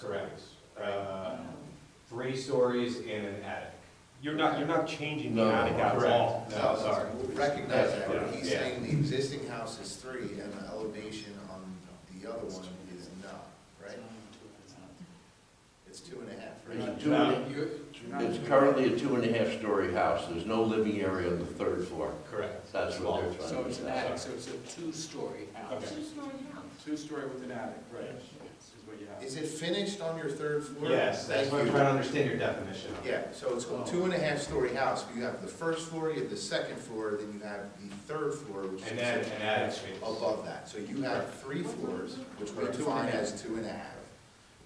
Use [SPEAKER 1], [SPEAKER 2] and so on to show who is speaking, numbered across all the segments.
[SPEAKER 1] correct. Uh, Three stories and an attic.
[SPEAKER 2] You're not, you're not changing the
[SPEAKER 3] No,
[SPEAKER 2] attic at all.
[SPEAKER 1] Correct. Uh, No, sorry.
[SPEAKER 3] Recognize that,
[SPEAKER 1] Yeah.
[SPEAKER 3] but he's
[SPEAKER 1] Yeah.
[SPEAKER 3] saying the existing house is three and the elevation on the other one is not, right? It's two and a half, right?
[SPEAKER 4] It's a two and a- It's currently a two and a half story house, there's no living area on the third floor.
[SPEAKER 1] Correct.
[SPEAKER 4] That's what they're trying
[SPEAKER 5] So
[SPEAKER 4] to
[SPEAKER 5] it's an
[SPEAKER 4] say.
[SPEAKER 5] attic, so it's a two-story house.
[SPEAKER 1] Okay.
[SPEAKER 5] Two-story with an attic, right, is what you have.
[SPEAKER 3] Is it finished on your third floor?
[SPEAKER 1] Yes, that's
[SPEAKER 3] Thank
[SPEAKER 1] what I'm
[SPEAKER 3] you.
[SPEAKER 1] trying to understand your definition. of.
[SPEAKER 3] Yeah, so it's a two and a half story house, but you have the first floor, you have the second floor, then you have the third floor, which
[SPEAKER 1] And then
[SPEAKER 3] is
[SPEAKER 1] an attic space.
[SPEAKER 3] above that. So you have three floors, which we define as two and a half.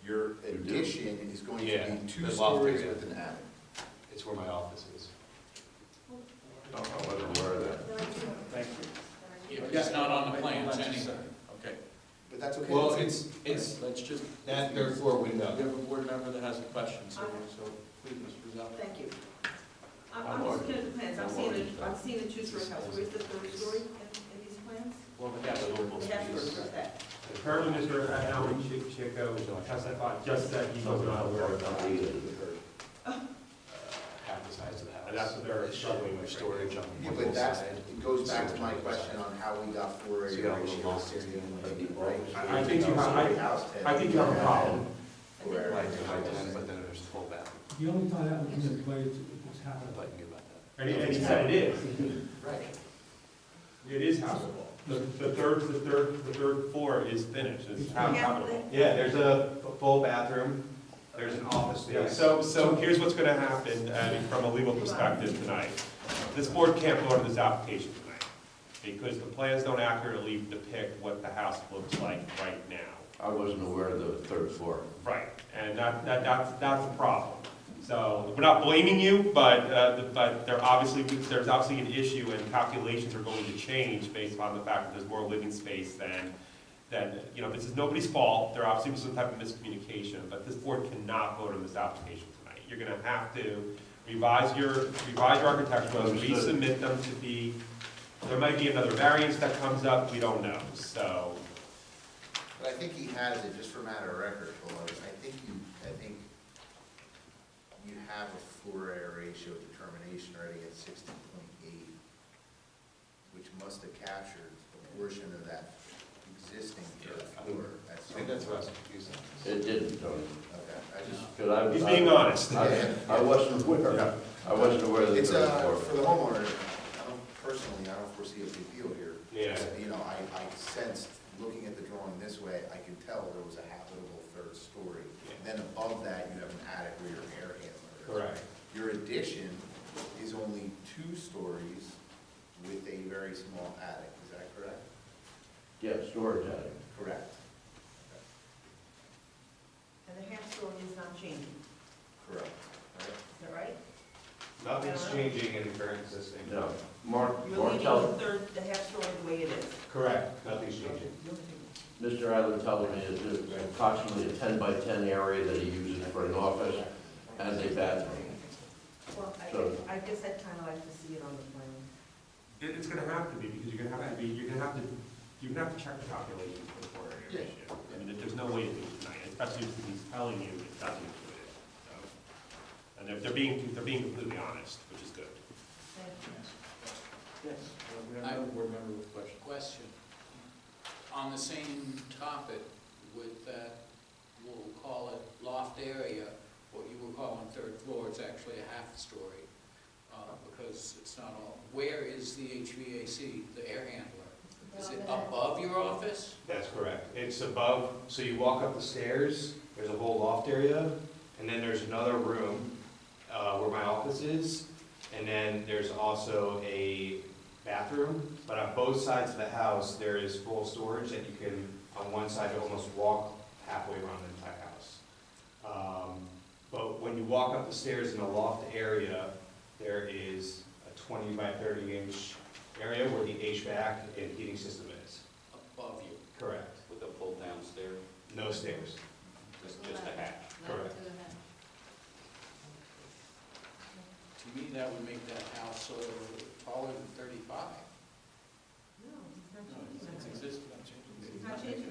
[SPEAKER 3] Your addition is going to
[SPEAKER 1] Yeah,
[SPEAKER 3] be two
[SPEAKER 1] the loft
[SPEAKER 3] stories
[SPEAKER 1] area.
[SPEAKER 3] with an attic.
[SPEAKER 1] It's where my office is.
[SPEAKER 4] I wasn't aware of that.
[SPEAKER 2] Thank you.
[SPEAKER 5] Yeah, but it's not on the plans
[SPEAKER 2] That's
[SPEAKER 5] anyway.
[SPEAKER 2] it.
[SPEAKER 5] Okay.
[SPEAKER 3] But that's okay.
[SPEAKER 1] Well,
[SPEAKER 3] that's-
[SPEAKER 1] it's, it's
[SPEAKER 5] Let's just,
[SPEAKER 1] that third floor window.
[SPEAKER 5] we have a board member that has a question, so, so please, Mr. Rizal.
[SPEAKER 6] Thank you. I'm, I'm just looking at the plans, I'm seeing, a- I'm seeing a two-story house, where's the third story in, in these plans?
[SPEAKER 5] Well, we have a-
[SPEAKER 6] We have to address that.
[SPEAKER 7] Currently, Mr. Alan Chi- Chico testified just that he was not aware of that.
[SPEAKER 1] Uh, Half the size of the house.
[SPEAKER 7] And that's what they're struggling with.
[SPEAKER 1] Storage on
[SPEAKER 3] Yeah,
[SPEAKER 1] one
[SPEAKER 3] but that's,
[SPEAKER 1] side.
[SPEAKER 3] it goes back to my question on how we got four
[SPEAKER 4] So you
[SPEAKER 3] area
[SPEAKER 4] got a little
[SPEAKER 3] ratio.
[SPEAKER 4] lost area in the middle.
[SPEAKER 3] Right?
[SPEAKER 7] I- I think you have- I- I think you have a problem.
[SPEAKER 6] And then-
[SPEAKER 1] Like, like, but then there's the full bathroom.
[SPEAKER 8] The only time that was in play is what's
[SPEAKER 1] I
[SPEAKER 8] happened.
[SPEAKER 1] thought you knew about that.
[SPEAKER 7] And he, and he said it is,
[SPEAKER 3] Right.
[SPEAKER 7] it is habitable. The, the third, the third, the third floor is finished, it's hab- habitable.
[SPEAKER 1] Yeah, there's a f- full bathroom, there's an office
[SPEAKER 7] Yeah,
[SPEAKER 1] space.
[SPEAKER 7] so, so here's what's gonna happen, I mean, from a legal perspective tonight. This board can't vote on this application tonight, because the plans don't accurately depict what the house looks like right now.
[SPEAKER 4] I wasn't aware of the third floor.
[SPEAKER 7] Right, and that, that, that's, that's a problem. So, we're not blaming you, but, uh, the- but there obviously, there's obviously an issue and calculations are going to change based upon the fact that there's more living space than, than, you know, this is nobody's fault, there obviously was some type of miscommunication, but this board cannot vote on this application tonight. You're gonna have to revise your, revise your architectural, plans,
[SPEAKER 4] Understood.
[SPEAKER 7] resubmit them to be, there might be another variance that comes up, we don't know, so.
[SPEAKER 3] But I think he has it, just for matter of record, Well, I think you, I think you have a four area ratio determination already at sixteen point eight, which must have captured a portion of that existing third floor. at
[SPEAKER 1] I
[SPEAKER 3] some
[SPEAKER 1] think that's what I
[SPEAKER 3] point.
[SPEAKER 1] was confused on.
[SPEAKER 4] It didn't, Tony.
[SPEAKER 3] Okay, I just,
[SPEAKER 4] 'Cause I-
[SPEAKER 7] He's being honest.
[SPEAKER 4] I I wasn't aware, I wasn't aware of the
[SPEAKER 3] It's,
[SPEAKER 4] third
[SPEAKER 3] uh,
[SPEAKER 4] floor.
[SPEAKER 3] for the homeowner, I don't, personally, I don't foresee a big deal here.
[SPEAKER 7] Yeah.
[SPEAKER 3] You know, I, I sensed, looking at the drawing this way, I can tell there was a habitable third story. Then above that, you have an attic where your air handler is.
[SPEAKER 7] Correct.
[SPEAKER 3] Your addition is only two stories with a very small attic, is that correct?
[SPEAKER 4] Yeah, storage attic.
[SPEAKER 3] Correct.
[SPEAKER 6] And the half story is not changing, is
[SPEAKER 3] Correct. Right?
[SPEAKER 6] that right?
[SPEAKER 1] Nothing's changing in the current existing.
[SPEAKER 4] No, Mark,
[SPEAKER 6] You're
[SPEAKER 4] Mark
[SPEAKER 6] leaving the
[SPEAKER 4] tell,
[SPEAKER 6] third, the half story the way it is.
[SPEAKER 1] Correct, nothing's changing.
[SPEAKER 4] Mr. Island telling me it's approximately a ten by ten area that he uses for an office and a bathroom.
[SPEAKER 6] Well,
[SPEAKER 4] So-
[SPEAKER 6] I, I guess I'd kind of like to see it on the plan.
[SPEAKER 7] It, it's gonna have to be, because you're gonna have to be, you're gonna have to, you're gonna have to check the calculations before your issue. I mean, there- there's no way to do it tonight, especially if he's telling you it doesn't include it, so. And they're, they're being, they're being completely honest, which is good.
[SPEAKER 5] Yes, we have another board member with a question.
[SPEAKER 9] Question. On the same topic with that, we'll call it loft area, what you were calling third floor, it's actually a half story, uh, because it's not all. Where is the HVAC, the air handler? Is it above your office?
[SPEAKER 1] That's correct. It's above, so you walk up the stairs, there's a whole loft area, and then there's another room uh, where my office is, and then there's also a bathroom, but on both sides of the house, there is full storage that you can, on one side, you almost walk halfway around the entire house. Um, But when you walk up the stairs in the loft area, there is a 20 by 30 inch area where the HVAC and heating system is.
[SPEAKER 9] Above you.
[SPEAKER 1] Correct.
[SPEAKER 9] With a pull down stair,
[SPEAKER 1] No stairs.
[SPEAKER 9] just, just a hatch.
[SPEAKER 1] Correct.
[SPEAKER 9] To me, that would make that house sort of taller than thirty-five.
[SPEAKER 6] No, it's not
[SPEAKER 9] No,
[SPEAKER 6] changing.
[SPEAKER 9] it's- It's existing.
[SPEAKER 6] It's not changing